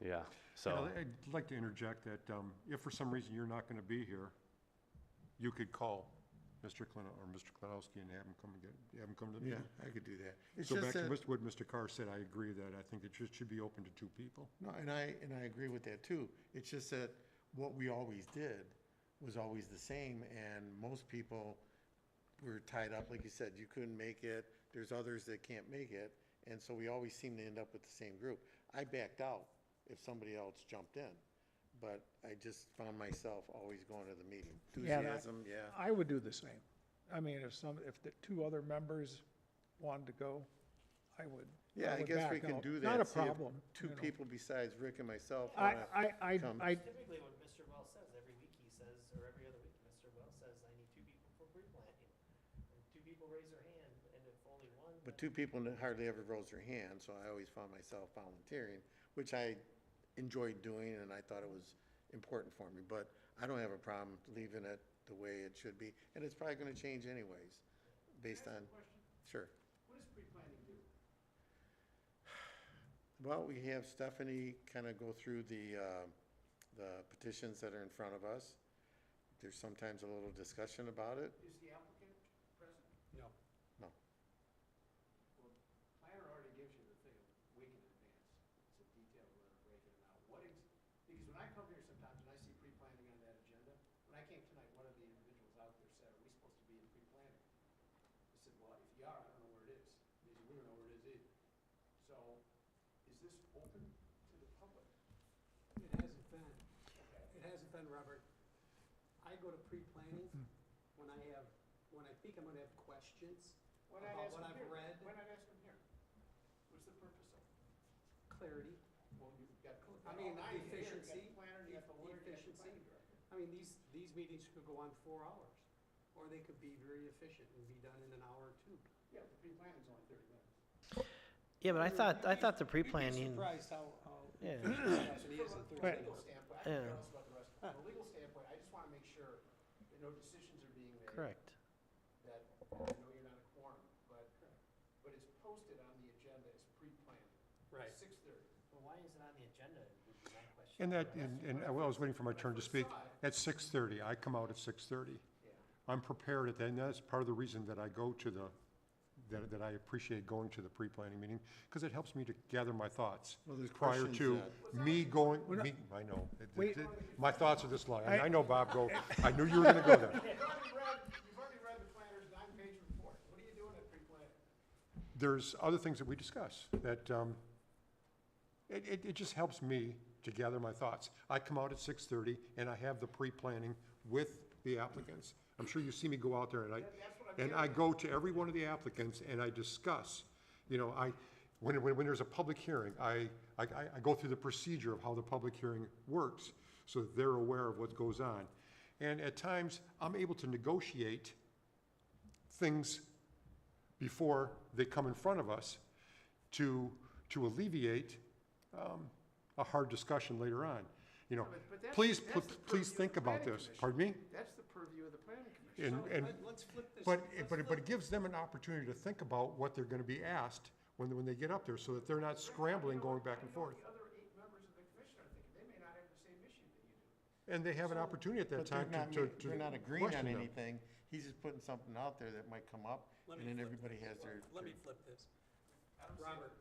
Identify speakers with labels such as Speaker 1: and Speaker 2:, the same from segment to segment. Speaker 1: yeah,
Speaker 2: And
Speaker 1: so,
Speaker 2: I- I'd like to interject that um, if for some reason you're not going to be here, you could call Mr. Klin, or Mr. Klinowski and have him come and get, have him come to the
Speaker 3: Yeah,
Speaker 2: meeting.
Speaker 4: Mm-hmm.
Speaker 3: I could do that. It's
Speaker 2: So back
Speaker 3: just
Speaker 2: to
Speaker 3: that,
Speaker 2: Mr. what Mr. Carr said, I agree that I think it should, should be open to two people.
Speaker 3: no, and I, and I agree with that too. It's just that what we always did was always the same and most people were tied up, like you said, you couldn't make it, there's others that can't make it. And so we always seem to end up with the same group. I backed out if somebody else jumped in, but I just found myself always going to the meeting.
Speaker 4: Yeah, and I-
Speaker 3: Enthusiasm, yeah.
Speaker 4: I would do the same. I mean, if some, if the two other members wanted to go, I would.
Speaker 3: Yeah, I
Speaker 4: would
Speaker 3: guess we
Speaker 4: back
Speaker 3: can
Speaker 4: out.
Speaker 3: do that.
Speaker 4: Not a
Speaker 3: see if
Speaker 4: problem.
Speaker 3: Two
Speaker 4: you know.
Speaker 3: people besides Rick and myself.
Speaker 4: I,
Speaker 3: wanna-
Speaker 4: I, I,
Speaker 3: come.
Speaker 4: I,
Speaker 5: Typically what Mr. Wells says, every week he says, or every other week, Mr. Wells says, I need two people for pre-planting. And two people raise their hand, and if only one,
Speaker 3: But
Speaker 5: then-
Speaker 3: two people n- hardly ever rose their hand, so I always found myself volunteering, which I enjoyed doing and I thought it was important for me. But I don't have a problem leaving it the way it should be, and it's probably gonna change anyways, based on. Sure. What does pre-planning do? Well, we have Stephanie kind of go through the, uh, the petitions that are in front of us. There's sometimes a little discussion about it.
Speaker 6: Is the applicant present? No.
Speaker 3: No.
Speaker 6: Well, planner already gives you the thing a week in advance. It's a detailed letter breaking it out. What is, because when I come here sometimes and I see pre-planning on that agenda, when I came tonight, one of the individuals out there said, are we supposed to be in pre-planning? I said, well, if you are, I don't know where it is. He said, we don't know where it is either. So is this open to the public?
Speaker 7: It hasn't been, it hasn't been, Robert. I go to pre-planning
Speaker 8: Hmm.
Speaker 7: when I have, when I think I'm gonna have questions
Speaker 6: Why not
Speaker 7: About
Speaker 6: ask
Speaker 7: what
Speaker 6: them
Speaker 7: I've
Speaker 6: here?
Speaker 7: read.
Speaker 6: Why not ask them here? What's the purpose of it?
Speaker 7: clarity.
Speaker 6: Well, you've got.
Speaker 7: I mean,
Speaker 6: all nine here, you've got
Speaker 7: efficiency,
Speaker 6: planner,
Speaker 7: e-
Speaker 6: you've got lawyer, you've got
Speaker 7: efficiency.
Speaker 6: planning director.
Speaker 7: I mean, these, these meetings could go on four hours, or they could be very efficient and be done in an hour or two.
Speaker 6: Yeah, the pre-planning's only thirty minutes.
Speaker 8: Yeah, but I thought, I thought the
Speaker 7: You'd be
Speaker 8: pre-planning,
Speaker 7: Surprised how, how.
Speaker 8: Yeah.
Speaker 7: efficient it is in
Speaker 6: From a-
Speaker 7: Thursday.
Speaker 6: From a legal standpoint, I
Speaker 8: Yeah.
Speaker 6: don't know about the rest, from a legal standpoint, I just wanna make sure that no decisions are being made.
Speaker 8: correct.
Speaker 6: That, I know you're not a quorum, but, but it's posted on the agenda as pre-planned.
Speaker 7: Right.
Speaker 6: Six thirty.
Speaker 5: Well, why is it on the agenda, would be my question.
Speaker 2: And that, and, and I was waiting for my turn to speak. At six thirty, I come out at six thirty. I'm prepared at that, and that's part of the reason that I go to the, that, that I appreciate going to the pre-planning meeting, because it helps me to gather my thoughts.
Speaker 3: Well, there's
Speaker 2: Prior
Speaker 3: questions
Speaker 2: to me going, me, I know. it- it-
Speaker 4: Wait.
Speaker 2: it- My thoughts are this long, and I know Bob go, I knew you were gonna go there.
Speaker 6: You've already read, you've already read the planner's nine-page report, what are you doing at pre-planning?
Speaker 2: There's other things that we discuss that, um, it, it, it just helps me to gather my thoughts. I come out at six thirty and I have the pre-planning with the applicants. I'm sure you see me go out there and I, and I go to every one of the applicants and I discuss, you know, I, when, when, when there's a public hearing, I, I, I- I go through the procedure of how the public hearing works so that they're aware of what goes on. And at times, I'm able to negotiate things before they come in front of us to, to alleviate um, a hard discussion later on. You know,
Speaker 6: but- but that's-
Speaker 2: please,
Speaker 6: that's
Speaker 2: pl-
Speaker 6: the purview
Speaker 2: please
Speaker 6: of
Speaker 2: think
Speaker 6: the
Speaker 2: about
Speaker 6: planning
Speaker 2: this.
Speaker 6: commission.
Speaker 2: Pardon me?
Speaker 6: That's the purview of the planning commission.
Speaker 2: And,
Speaker 7: So,
Speaker 2: and,
Speaker 7: let- Let's flip this.
Speaker 2: but,
Speaker 7: let's
Speaker 2: but, it- but it
Speaker 7: flip
Speaker 2: gives them an opportunity to think about what they're gonna be asked when, when they get up there, so that they're not scrambling, going back and forth.
Speaker 6: The other eight members of the commission are thinking, they may not have the same issue that you do.
Speaker 2: And they have an opportunity at that time
Speaker 3: But they're not,
Speaker 2: to, to,
Speaker 3: ma-
Speaker 2: to
Speaker 3: they're not agreeing
Speaker 2: question
Speaker 3: on
Speaker 2: them.
Speaker 3: anything, he's just putting something out there that might come up,
Speaker 7: Let
Speaker 3: and
Speaker 7: me
Speaker 3: then
Speaker 7: flip
Speaker 3: everybody has their.
Speaker 7: Let me flip this. Robert,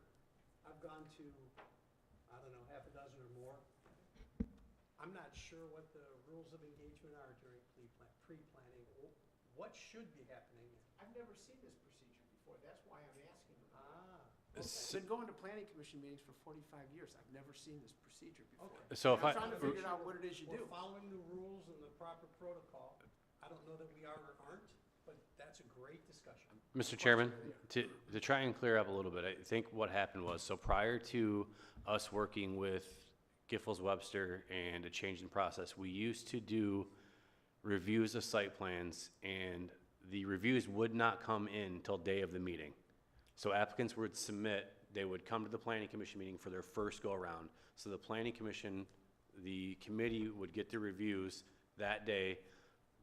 Speaker 7: I've gone to, I don't know, half a dozen or more. I'm not sure what the rules of engagement are during pre-plan, pre-planning. Wh- What should be happening?
Speaker 6: I've never seen this procedure before, that's why I'm asking about it.
Speaker 7: Ah,
Speaker 6: I've been going to planning commission meetings for forty-five years, I've never seen this procedure before.
Speaker 7: Okay.
Speaker 1: so if I,
Speaker 6: I'm trying to figure out what it is you do.
Speaker 7: we're following the rules and the proper protocol. I don't know that we are or aren't, but that's a great discussion.
Speaker 1: Mr. Chairman, to, to try and clear up a little bit, I think what happened was, so prior to us working with Giffords Webster and a change in process, we used to do reviews of site plans, and the reviews would not come in till day of the meeting. So applicants would submit, they would come to the planning commission meeting for their first go-around. So the planning commission, the committee would get the reviews that day.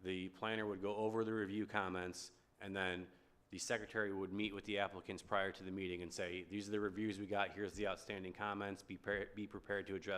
Speaker 1: The planner would go over the review comments, and then the secretary would meet with the applicants prior to the meeting and say, these are the reviews we got, here's the outstanding comments, be prepared, be prepared to address